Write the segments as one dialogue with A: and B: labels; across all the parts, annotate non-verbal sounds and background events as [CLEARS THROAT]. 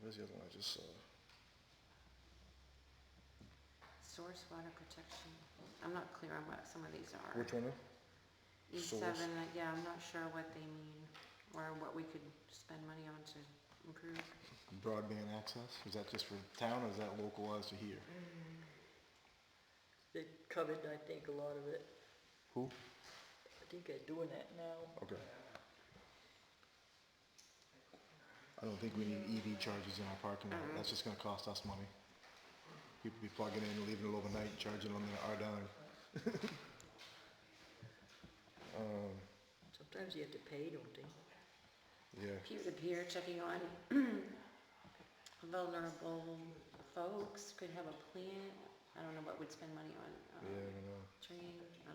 A: where's the other one I just saw?
B: Source water protection. I'm not clear on what some of these are.
A: Which one? though?
B: E
A: source?
B: seven, uh, yeah, I'm not sure what they mean or what we could spend money on to improve.
A: Broadband access? Is that just for town or is that localized to here?
C: They covered, I think, a lot of it.
A: Who?
C: I think they're doing that now.
A: Okay. I don't think we need EV chargers in our parking lot. That's just gonna cost us money. People be plugging in and leaving it overnight, charging them in our dime. Um,
C: Sometimes you have to pay, don't they?
A: yeah,
B: Peer-to-peer checking on [CLEARS THROAT] vulnerable folks could have a plan. I don't know what we'd spend money on.
A: yeah, I
B: um,
A: don't know.
B: Training, I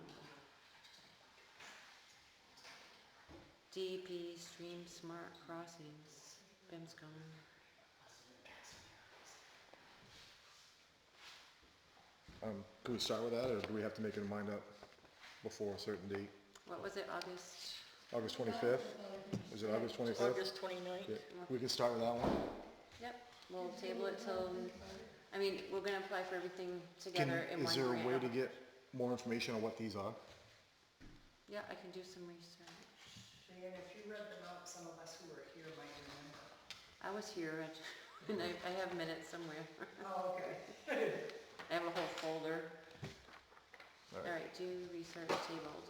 B: don't know. DEP Stream Smart Crossings, BIMSCOM.
A: Um, could we start with that or do we have to make it mind up before a certain date?
B: What was it, August?
A: August twenty-fifth? Is it August twenty-fifth?
C: August twenty-ninth?
A: Yeah, we can start with that one.
B: Yep, we'll table it till, I mean, we're gonna apply for everything
A: Can,
B: together in one grant.
A: is there a way to get more information on what these are?
B: Yeah, I can do some research.
D: Diane, if you read them out, some of us who were here might remember.
B: I was here at, [LAUGHS] and I, I have minutes somewhere. [LAUGHS]
D: Oh, okay.
B: I have a whole folder.
A: All right.
B: Alright, do research tabled.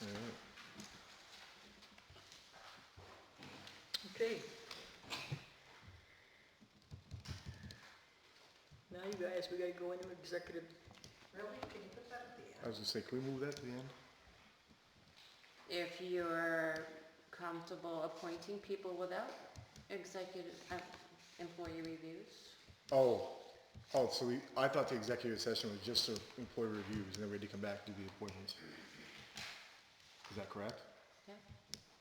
A: Alright.
C: Okay. Now you guys, we gotta go into executive, [LAUGHS]
D: Really? Can you put that at the
A: I
D: end?
A: was gonna say, can we move that to the end?
B: If you're comfortable appointing people without executive, uh, employee reviews,
A: Oh, oh, so we, I thought the executive session was just for employee reviews, and then we had to come back to the appointments. Is that correct?
B: yeah?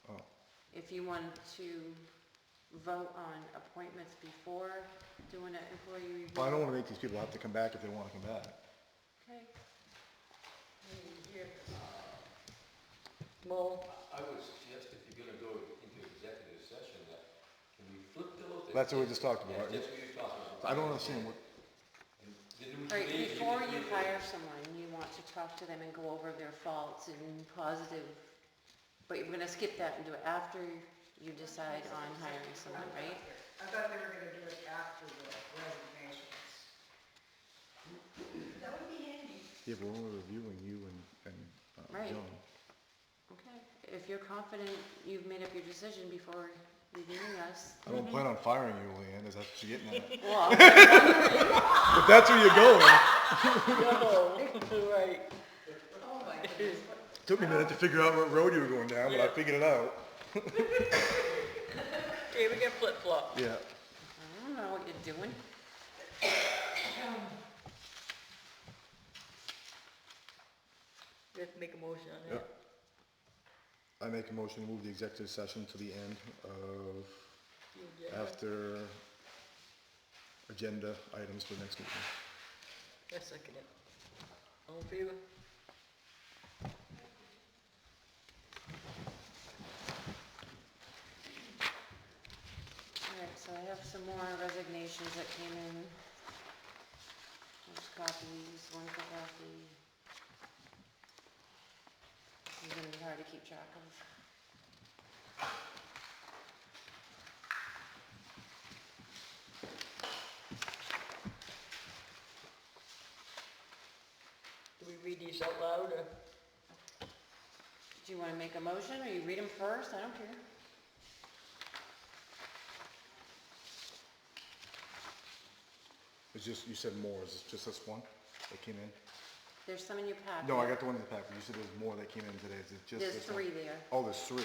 A: Oh,
B: If you want to vote on appointments before doing an employee review.
A: well, I don't wanna make these people have to come back if they wanna come back.
B: Okay,
C: Mo,
E: I would suggest if you're gonna go into executive session, that, can we flip those?
A: That's what we just talked about.
E: Yeah, that's what you talked about.
A: I don't understand what,
B: all right, before you hire someone, you want to talk to them and go over their faults and positive, but you're gonna skip that and do it after you decide on hiring someone, right?
D: I thought they were gonna do it after the resignations. That would be handy.
A: yeah, but we're only reviewing you and, and, uh,
B: Right.
A: John.
B: Okay, if you're confident you've made up your decision before reviewing us,
A: I don't plan on firing you, Leanne, is that what you're getting at?
B: well,
A: If that's where you're going,
C: no, right.
D: Oh, my goodness.
A: took me a minute to figure out what road you were going down, but I figured it out.
C: Okay, we got flip-flop.
A: Yeah,
B: I don't know what you're doing.
C: We have to make a motion on
A: yeah.
C: that.
A: I make a motion to move the executive session to the end of
C: Yeah.
A: after agenda items for next meeting.
C: I second it. All in favor?
B: Alright, so I have some more resignations that came in. There's copies, one for Kathy. It's gonna be hard to keep track of.
C: Do we read these out loud or?
B: Do you wanna make a motion, or you read them first? I don't care.
A: It's just, you said more, is it just this one that came in?
B: There's some in your packet.
A: No, I got the one in the packet, you said there's more that came in today, is it just
B: There's
A: this one?
B: three there.
A: Oh, there's three,